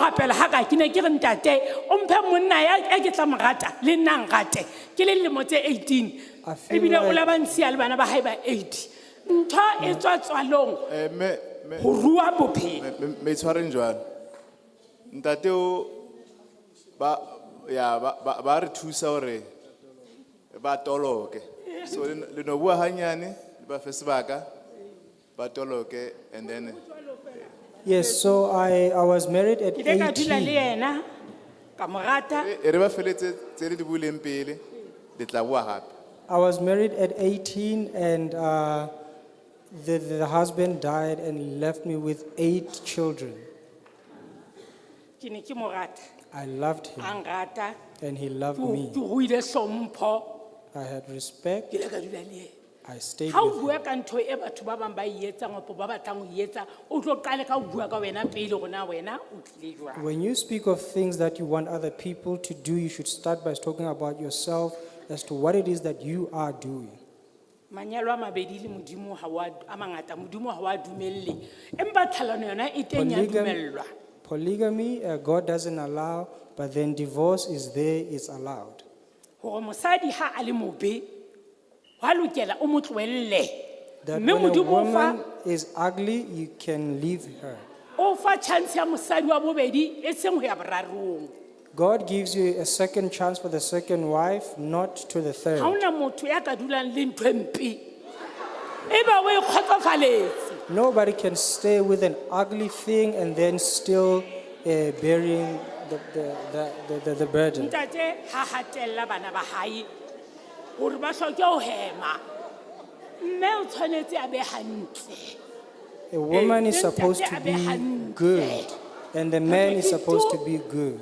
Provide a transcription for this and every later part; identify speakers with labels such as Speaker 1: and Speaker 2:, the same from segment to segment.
Speaker 1: rapela ha ka ke ne ke re ntate o mphe monna ya e ke tla mo rata le nna ngate ke le lemo tse 18
Speaker 2: I feel
Speaker 1: ebile o
Speaker 2: like-
Speaker 1: la ba ntshiya le bana ba hae ba 80 ntho e tswa tswalong
Speaker 3: Eh, me, me,
Speaker 1: ho rua bophelo
Speaker 3: me, me, me tshwareng jwang ntate o ba ya ba ba- ba re thusa hore ba toloke so le le no bua hanyane le ba fe sebaka ba toloke and then
Speaker 2: Yes, so I, I was married at
Speaker 1: ke ile ka dula le
Speaker 2: 18.
Speaker 1: yena ka mo rata
Speaker 3: e e re ba feletse tse le di buileng pele le tla bua hape
Speaker 2: I was married at 18 and uh, the, the husband died and left me with eight children.
Speaker 1: ke ne ke mo rata
Speaker 2: I loved him
Speaker 1: a nrata
Speaker 2: and he loved
Speaker 1: ke o-
Speaker 2: me.
Speaker 1: ke ruile hlompho
Speaker 2: I had respect.
Speaker 1: ke ile ka dula le yena
Speaker 2: I stayed
Speaker 1: ha o
Speaker 2: with him.
Speaker 1: bua ka ntho e batho ba bang ba e etsang opo ba batlang ho e etsa o tlo qale ka ho bua ka wena pele hore na wena o tlile jwang
Speaker 2: When you speak of things that you want other people to do, you should start by talking about yourself as to what it is that you are doing.
Speaker 1: manyalo a mabedi le modimo ha wa- a mangata modimo ha wa dumelle empa tlhalano yona e teng ya
Speaker 2: Polygam-
Speaker 1: dumellwa
Speaker 2: polygamy, uh, God doesn't allow, but then divorce is there, it's allowed.
Speaker 1: hore mosadi ha a le mobe wa lokela o mo tlohelle
Speaker 2: That
Speaker 1: mme
Speaker 2: when a
Speaker 1: modimo o fa
Speaker 2: woman is ugly, you can leave her.
Speaker 1: o fa chance ya mosadi wa bobedi e seng ho ya borarong
Speaker 2: God gives you a second chance for the second wife, not to the
Speaker 1: ha
Speaker 2: third.
Speaker 1: ona motho ya ka dulang le ntho e mpe eba o e kgotsofaletse
Speaker 2: Nobody can stay with an ugly thing and then still uh, bearing the, the, the, the, the, the burden.
Speaker 1: ntate ha hatella bana ba hae hore ba hloke ho hema mme o tshwanetse a be hantle
Speaker 2: A woman is
Speaker 1: Eh,
Speaker 2: supposed to
Speaker 1: ntate a be
Speaker 2: be
Speaker 1: hantle.
Speaker 2: good, and the man is supposed to be good.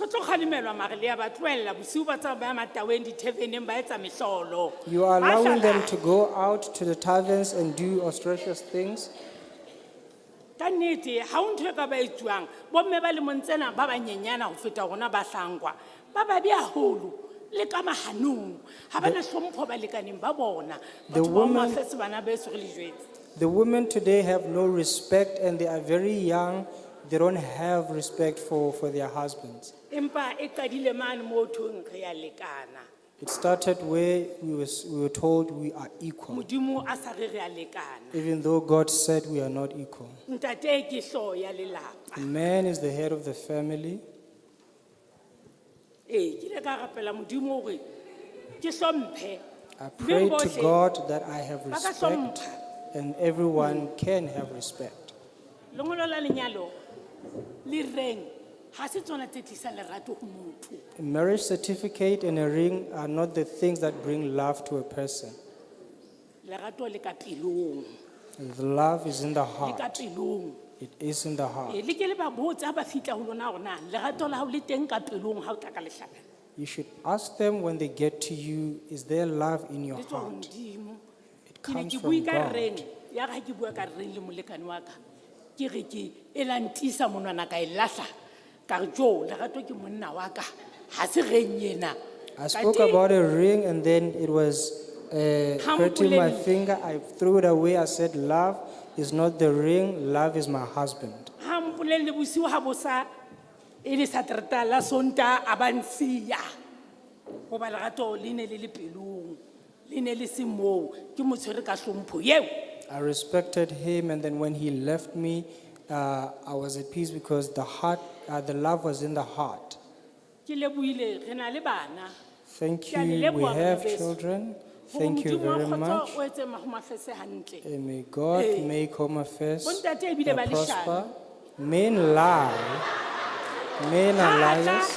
Speaker 1: re tlo kgalemelwa mare le ya ba tlohella bosiu ba tsa ba ya mataweng diteveneng ba etsa mehlolo
Speaker 2: You are allowing them
Speaker 1: Ahlala.
Speaker 2: to go out to the taverns and do auspicious things.
Speaker 1: ka nnete ha o ntho e ka ba etsuwang bomme ba lemong tsena ba banyenyana ho feta rona ba hlankwa ba babe haholo le ka mahanong ha ba na hlompho balekaneng ba bona
Speaker 2: The
Speaker 1: batho ba
Speaker 2: woman-
Speaker 1: mafese bana beso re le jwetse
Speaker 2: The women today have no respect and they are very young. They don't have respect for, for their husbands.
Speaker 1: empa e qadile mane mo thong re ya lekana
Speaker 2: It started where we, was, we were told we are equal,
Speaker 1: modimo a sa re re a lekana
Speaker 2: even though God said we are not equal.
Speaker 1: ntate ke hlooho ya lelapa
Speaker 2: The man is the head of the family.
Speaker 1: ee ke ile ka rapela modimo hore ke hlomphe
Speaker 2: I pray
Speaker 1: Beng
Speaker 2: to
Speaker 1: bohle
Speaker 2: God that I have
Speaker 1: ba ka
Speaker 2: respect
Speaker 1: hlompha
Speaker 2: and everyone can have respect.
Speaker 1: lengolo la lenyalo le reng ha se tsona tse tlisang lerato ho motho
Speaker 2: A marriage certificate and a ring are not the things that bring love to a person.
Speaker 1: lerato le ka pelong
Speaker 2: The love is in the
Speaker 1: le ka
Speaker 2: heart.
Speaker 1: pelong
Speaker 2: It is in the
Speaker 1: Ee,
Speaker 2: heart.
Speaker 1: le ke le ba botse ha ba fihla ho lona hore na lerato la hao le teng ka pelong ha o tla ka lehlaka
Speaker 2: You should ask them when they get to you, is there love in your
Speaker 1: le tswa ho
Speaker 2: heart?
Speaker 1: modimo
Speaker 2: It
Speaker 1: ke ne
Speaker 2: comes
Speaker 1: ke
Speaker 2: from
Speaker 1: bui ka
Speaker 2: God.
Speaker 1: reng ya ga ke bua ka reng le molekane wa ka ke re ke e lantisa monwana ka e latlha ka re jo lerato ke monna wa ka ga se reng ena
Speaker 2: I spoke about a ring and then it was uh, hurting my
Speaker 1: Hampoleng.
Speaker 2: finger. I threw it away. I said, Love is not the ring, love is my husband.
Speaker 1: ga mpolelele bosigo ga bosa e le saterata la sonta a bantsia goba lerato le ne le le pelong le ne le se moo ke mo tshwere ka tlhompho eo
Speaker 2: I respected him and then when he left me, uh, I was at peace because the heart, uh, the love was in the heart.
Speaker 1: ke leboile re na le bana
Speaker 2: Thank
Speaker 1: Ke a le
Speaker 2: you. We
Speaker 1: leboha,
Speaker 2: have
Speaker 1: Modimo.
Speaker 2: children.
Speaker 1: Hore
Speaker 2: Thank you
Speaker 1: Modimo wa
Speaker 2: very
Speaker 1: kgotso
Speaker 2: much. Eh,
Speaker 1: o etse mago mafese hantle
Speaker 2: And may God
Speaker 1: Ee.
Speaker 2: make home affairs
Speaker 1: Bontate ebile
Speaker 2: uh,
Speaker 1: ba leshano.
Speaker 2: prosper. Men lie. Men are
Speaker 1: Ha a tla-
Speaker 2: liars.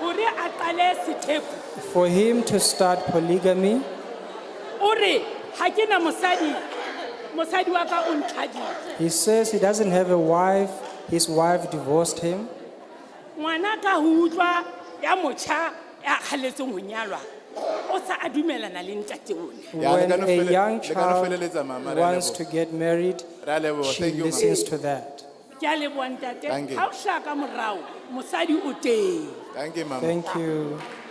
Speaker 1: hore a qale sethepu
Speaker 2: For him to start polygamy,
Speaker 1: o re ga ke na mosadi mosadi wa ka o nthadile
Speaker 2: he says he doesn't have a wife. His wife divorced him.
Speaker 1: ngwana ka ho utlwa ya motjha ya kgaletseng ho nyalwa o sa a dumelana le ntate one
Speaker 3: Yeah,
Speaker 2: when
Speaker 3: lekano
Speaker 2: a
Speaker 3: fele-
Speaker 2: young
Speaker 3: lekano
Speaker 2: child
Speaker 3: feleletsa, mama, re a
Speaker 2: wants
Speaker 3: leboha.
Speaker 2: to get married,
Speaker 3: Re a leboha.
Speaker 2: she
Speaker 3: Thank you, mama.
Speaker 2: listens to that.
Speaker 1: ke a leboa ntate
Speaker 3: Thank you.
Speaker 1: ga o hlaka morao mosadi o teng
Speaker 3: thank you mama
Speaker 2: Thank you.